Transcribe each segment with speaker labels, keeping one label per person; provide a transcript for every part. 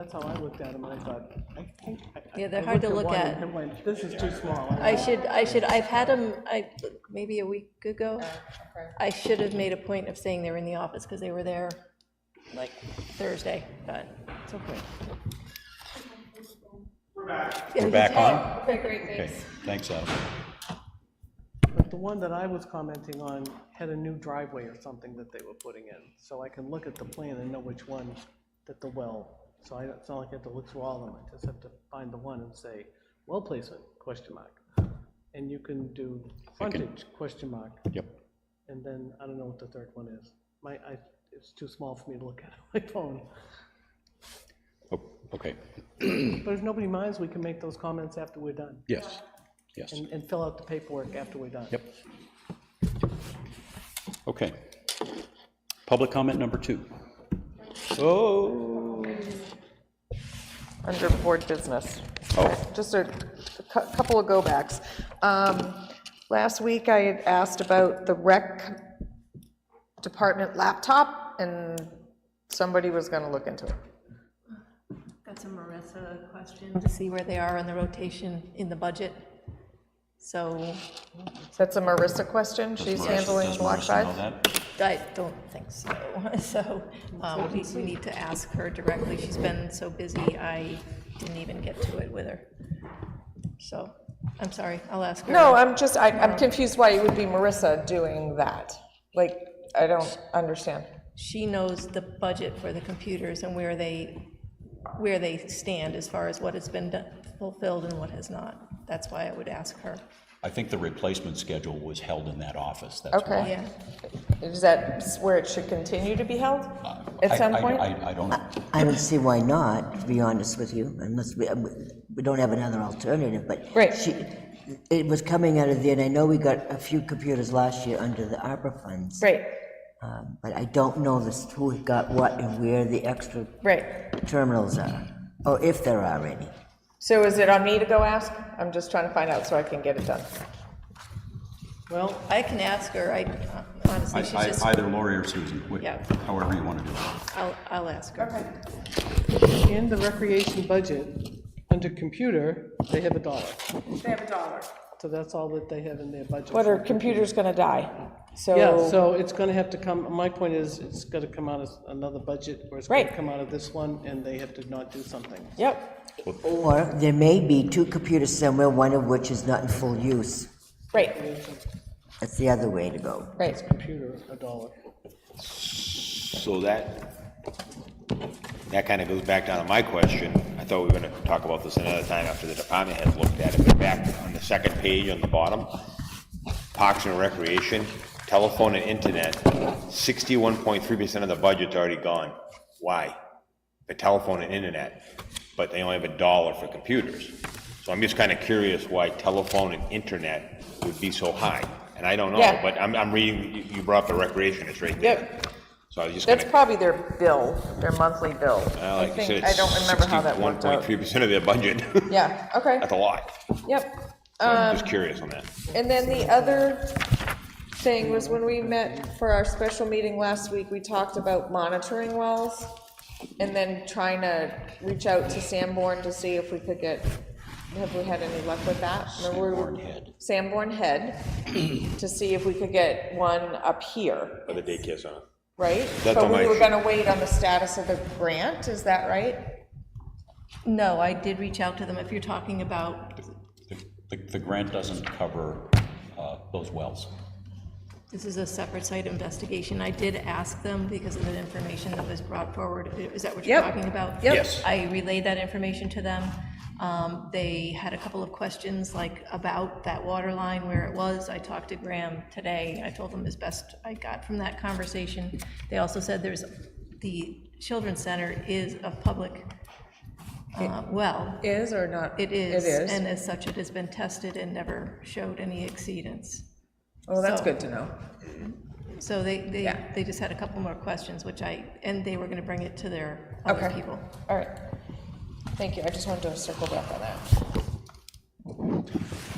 Speaker 1: that's how I looked at them, and I thought, I think. I- I-
Speaker 2: Yeah, they're
Speaker 1: I
Speaker 2: hard to
Speaker 1: looked
Speaker 2: look
Speaker 1: one
Speaker 2: at.
Speaker 1: And went, this is too small.
Speaker 2: I should, I should, I've had them, I, maybe a week ago. I should have made a point of saying they were in the office, because they were there like Thursday, but it's okay.
Speaker 3: We're back on?
Speaker 4: Great, great,
Speaker 3: Okay,
Speaker 4: thanks.
Speaker 3: thanks, Adam.
Speaker 1: But the one that I was commenting on had a new driveway or something that they were putting in, so I can look at the plan and know which one that the well. So I, it's not like I have to look through all of them, I just have to find the one and say, well placement, question mark. And you can do frontage, question mark,
Speaker 3: Yep.
Speaker 1: and then I don't know what the third one is. My, I, it's too small for me to look at on my phone.
Speaker 3: Oh, Okay,
Speaker 1: But if nobody minds, we can make those comments after we're done,
Speaker 3: yes, yes,
Speaker 1: and, and fill out the paperwork after we're done.
Speaker 3: yep. Okay. Public comment number two. Oh,
Speaker 5: under board business.
Speaker 3: oh,
Speaker 5: Just a cou- couple of go-backs. Um, Last week, I had asked about the rec department laptop, and somebody was going to look into it.
Speaker 2: That's a Marissa question. To see where they are on the rotation in the budget. So
Speaker 5: That's a Marissa question. She's handling
Speaker 3: does
Speaker 5: block
Speaker 3: Marissa know
Speaker 5: five.
Speaker 3: that?
Speaker 2: I don't think so. So um, we we need to ask her directly. She's been so busy, I didn't even get to it with her. So, I'm sorry, I'll ask her.
Speaker 5: No, I'm just, I- I'm confused why it would be Marissa doing that. Like, I don't understand.
Speaker 2: She knows the budget for the computers and where they, where they stand as far as what has been done- fulfilled and what has not. That's why I would ask her.
Speaker 3: I think the replacement schedule was held in that office, that's why.
Speaker 5: Okay.
Speaker 2: Yeah,
Speaker 5: Is that where it should continue to be held at
Speaker 3: Uh, I-
Speaker 5: some
Speaker 3: I-
Speaker 5: point?
Speaker 3: I, I don't,
Speaker 6: I don't see why not, to be honest with you, unless we, um, we don't have another alternative, but.
Speaker 5: Right.
Speaker 6: she- It was coming out of there, and I know we got a few computers last year under the ARPA funds.
Speaker 5: Right,
Speaker 6: um, But I don't know this, who got what and where the extra
Speaker 5: right.
Speaker 6: terminals are, or if there are any.
Speaker 5: So is it on me to go ask? I'm just trying to find out so I can get it done.
Speaker 1: Well,
Speaker 2: I can ask her, I honestly, she's
Speaker 3: I-
Speaker 2: just,
Speaker 3: I- either Lori or Susan, wh-
Speaker 2: Yeah.
Speaker 3: however you want to do it.
Speaker 2: I'll, I'll ask her.
Speaker 1: In the recreation budget, under computer, they have a dollar. They have a dollar. So that's all that they have in their budget.
Speaker 5: But our computer's gonna die, so.
Speaker 1: Yeah, so it's gonna have to come, my point is, it's gonna come out of another budget, or it's gonna
Speaker 5: Right.
Speaker 1: come out of this one, and they have to not do something.
Speaker 5: Yep,
Speaker 6: Or there may be two computers somewhere, one of which is not in full use.
Speaker 5: right,
Speaker 6: That's the other way to go.
Speaker 5: right.
Speaker 1: Computer, a dollar.
Speaker 7: So that, that kind of goes back down to my question. I thought we were going to talk about this another time after the department heads looked at it, but back on the second page on the bottom, Parks and Recreation, telephone and internet, 61.3% of the budget's already gone. Why? For telephone and internet, but they only have a dollar for computers. So I'm just kind of curious why telephone and internet would be so high. And I don't know,
Speaker 5: Yeah.
Speaker 7: but I'm, I'm reading, you- you brought up the recreation, it's right there.
Speaker 5: Yep.
Speaker 7: So I was just
Speaker 5: That's
Speaker 7: gonna,
Speaker 5: probably their bill, their monthly bill.
Speaker 7: uh,
Speaker 5: I
Speaker 7: like you
Speaker 5: think,
Speaker 7: said,
Speaker 5: I don't remember how that worked out.
Speaker 7: 1.3% of their budget.
Speaker 5: Yeah, okay,
Speaker 7: That's a lot.
Speaker 5: yep. Um,
Speaker 7: So I'm just curious on that.
Speaker 5: And then the other thing was when we met for our special meeting last week, we talked about monitoring wells and then trying to reach out to Sanborn to see if we could get, have we had any luck with that? Remember we were-
Speaker 3: Sanborn Head.
Speaker 5: Sanborn Head, to see if we could get one up here,
Speaker 7: Or the daycare center.
Speaker 5: right?
Speaker 7: That's
Speaker 5: But
Speaker 7: on
Speaker 5: we
Speaker 7: my
Speaker 5: were
Speaker 7: sheet.
Speaker 5: gonna wait on the status of the grant, is that right?
Speaker 2: No, I did reach out to them, if you're talking about,
Speaker 3: The- The, the grant doesn't cover uh, those wells.
Speaker 2: this is a separate site investigation, I did ask them because of the information that was brought forward, is that what you're
Speaker 5: Yep.
Speaker 2: talking about?
Speaker 5: Yep.
Speaker 7: Yes.
Speaker 2: I relayed that information to them. Um, They had a couple of questions, like about that water line, where it was. I talked to Graham today. I told him as best I got from that conversation. They also said there's, the Children's Center is a public uh, well.
Speaker 5: Is or not?
Speaker 2: It is.
Speaker 5: It is.
Speaker 2: And as such, it has been tested and never showed any exceedance.
Speaker 5: Well, that's
Speaker 2: so-
Speaker 5: good to know.
Speaker 2: So they, they,
Speaker 5: Yeah.
Speaker 2: they just had a couple more questions, which I, and they were going to bring it to their other
Speaker 5: Okay.
Speaker 2: people.
Speaker 5: All right. Thank you, I just wanted to circle back on that.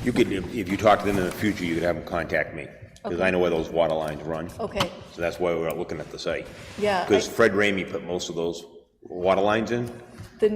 Speaker 7: You could, if if you talk to them in the future, you could have them contact me, because I know where those water lines run.
Speaker 5: Oh.
Speaker 2: Okay,
Speaker 7: So that's why we're looking at the site.
Speaker 2: yeah. I-
Speaker 7: Because Fred Ramey put most of those water lines in,